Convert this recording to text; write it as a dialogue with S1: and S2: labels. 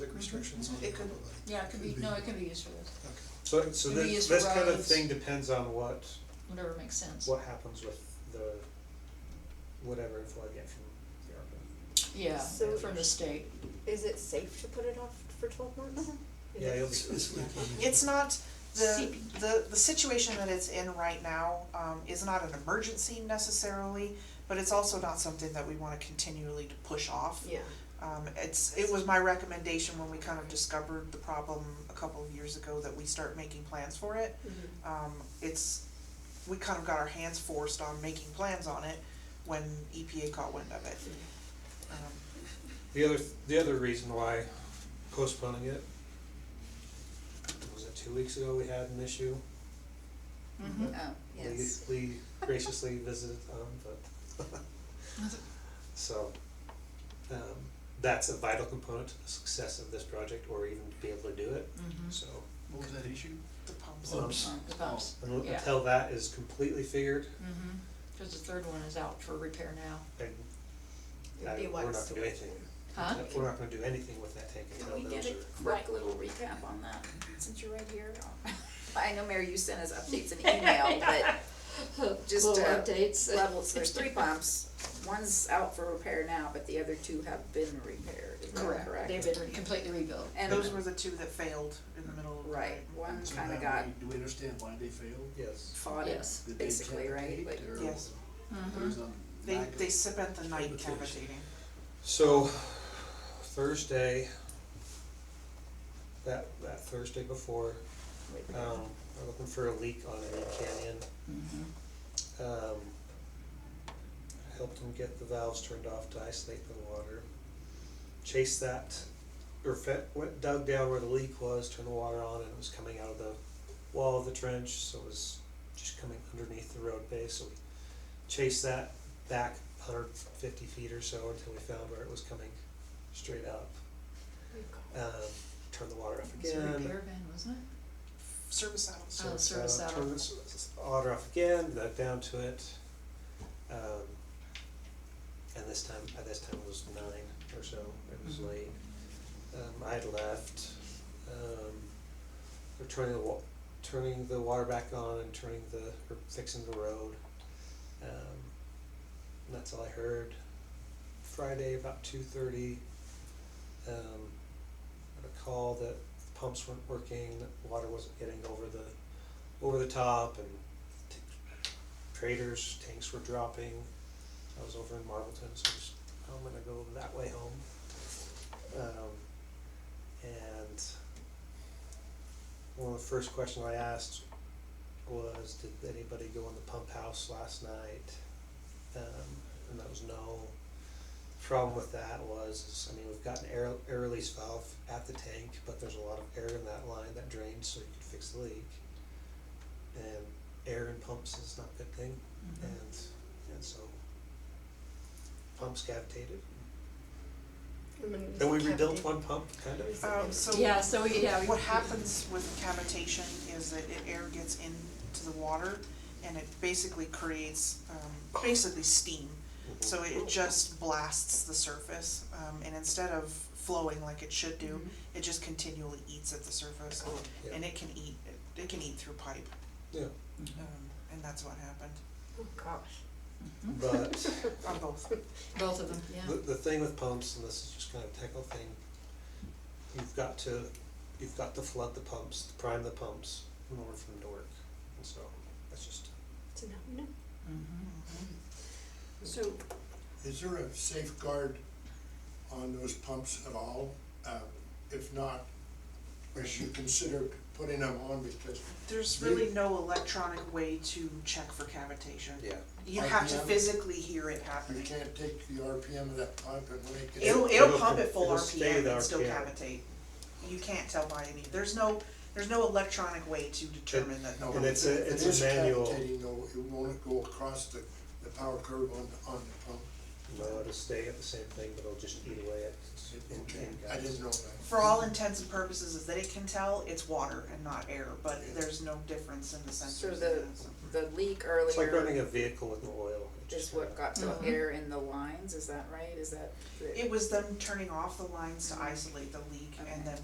S1: Mm-hmm.
S2: restrictions on
S3: It could-
S2: Cumberland.
S3: Yeah, it could be, no, it could be used for this,
S2: Okay.
S4: So, so
S3: Maybe
S4: this,
S3: use
S4: this kind of
S3: roads.
S4: thing depends on what,
S3: whatever makes sense.
S4: what happens with the, whatever info I get from the ARPA.
S3: Yeah,
S5: So-
S3: from the state.
S5: Is it safe to put it off for twelve months? Is
S4: Yeah,
S5: it-
S4: you'll
S2: It's-
S4: be,
S2: it's like, um,
S6: It's not, the,
S3: CP.
S6: the, the situation that it's in right now, um, is not an emergency necessarily, but it's also not something that we wanna continually to push off.
S5: Yeah,
S6: Um, it's, it was my recommendation when we kind of discovered the problem a couple of years ago that we start making plans for it.
S5: Mhm.
S6: Um, it's, we kind of got our hands forced on making plans on it when EPA caught wind of it. Um,
S4: the other, the other reason why postponing it, was it two weeks ago we had an issue?
S3: Mm-hmm.
S7: Oh, yes.
S4: Lee Lee graciously visited, um, but, so, um, that's a vital component to the success of this project or even to be able to do it,
S3: Mm-hmm.
S4: so.
S7: What was that issue?
S6: The pumps.
S4: Pumps.
S3: The
S1: Oh.
S3: pumps,
S4: un-
S3: Yeah.
S4: Until that is completely figured,
S3: mm-hmm, cause the third one is out for repair now,
S4: then
S7: It'd be
S4: I-
S7: what
S4: we're not
S7: s-
S4: gonna do anything.
S3: huh?
S4: We're not gonna do anything with that tank
S7: Can we
S4: until
S7: get
S4: those
S7: a
S4: are,
S7: quick little recap on that, since you're right here? I know, Mary, you sent us updates in email, but just
S5: Little
S7: uh,
S5: updates.
S7: levels, there's three pumps. One's out for repair now, but the other two have been repaired, is that correct?
S3: They've been completely rebuilt.
S7: And,
S6: Those were the two that failed in the middle of the
S7: right,
S6: night.
S7: one
S1: So
S7: kinda
S1: now
S7: got
S1: we- Do we understand why they failed?
S4: yes,
S7: fought
S3: Yes. Mm-hmm.
S1: Did they
S7: basically, right? Like, Mm-hmm.
S1: cavitate or
S6: Yes.
S1: there was a
S6: They,
S1: lack of-
S6: they spent the night
S1: Invitation.
S6: cavitating.
S4: so Thursday, that, that Thursday before,
S7: wait,
S4: um, we're looking for a leak on Lee Canyon.
S3: Mm-hmm.
S4: um, helped him get the valves turned off to isolate the water. Chased that, or fe- went dug down where the leak was, turned the water on, and it was coming out of the wall of the trench, so it was just coming underneath the road base. So we chased that back 150 feet or so until we found where it was coming straight up. Um, turned the water off
S3: It's a
S4: again.
S3: repair van, wasn't it?
S6: Service hours.
S3: Oh, service
S4: uh,
S3: hour.
S4: Turn this this order off again, back down to it. Um, and this time, by this time it was nine or so, it was
S3: Mhm.
S4: late. Um, I had left, um, we're turning the wa- turning the water back on and turning the, or fixing the road. Um, and that's all I heard. Friday about two thirty, um, I had a call that pumps weren't working, that water wasn't getting over the over the top and t- traders, tanks were dropping. I was over in Marlton, so just, I'm gonna go that way home. Um, and one of the first questions I asked was, did anybody go in the pump house last night? Um, and that was no. Problem with that was, is, I mean, we've got an air, air release valve at the tank, but there's a lot of air in that line that drains, so you could fix the leak. And air in pumps is not a good thing,
S3: Mhm.
S4: and, and so pumps cavitated. Then we rebuilt one pump, kind of.
S6: Um, so
S3: Yeah, so we, yeah, we.
S6: what happens with cavitation is that it, air gets into the water and it basically creates, um, basically steam. So it just blasts the surface, um, and instead of flowing like it should do, it just continually eats at the surface.
S4: Yeah.
S6: And it can eat, it- it can eat through pipe,
S4: Yeah,
S6: um, and that's what happened
S5: Oh, gosh.
S4: but
S6: on both.
S3: Both of them, yeah.
S4: the, the thing with pumps, and this is just kind of a technical thing, you've got to, you've got to flood the pumps, to prime the pumps in order for them to work. And so, that's just,
S5: So now we know.
S3: Mhm.
S7: So,
S1: Is there a safeguard on those pumps at all? Uh, If not, we should consider putting them on because
S6: There's really no electronic way to check for cavitation.
S4: yeah.
S6: You have to
S1: RPM?
S6: physically hear it
S1: you
S6: happening.
S1: can't take the RPM of that pump and make it.
S6: It'll, it'll pump at full
S4: It'll stay
S6: RPM
S4: the
S6: and still
S4: RPM.
S6: cavitate. You can't tell by any, there's no, there's no electronic way to determine that.
S1: No,
S4: And it's a-
S1: if
S4: it's
S1: it
S4: a
S1: is
S4: manual.
S1: cavitating though, it won't go across the, the power curve on, the- on the pump.
S4: No, it'll stay at the same thing, but it'll just eat away at, in,
S1: Okay,
S4: in
S1: I
S4: guys.
S1: didn't know that.
S6: For all intents and purposes, is that it can tell it's water and not air, but there's no difference in the
S7: so
S6: sensors.
S7: the, the leak earlier.
S4: It's like running a vehicle with no oil, it
S7: is what got the
S3: Mhm.
S7: air in the lines, is that right? Is that the?
S6: It was them turning off the lines to isolate the leak and
S7: Okay.
S6: then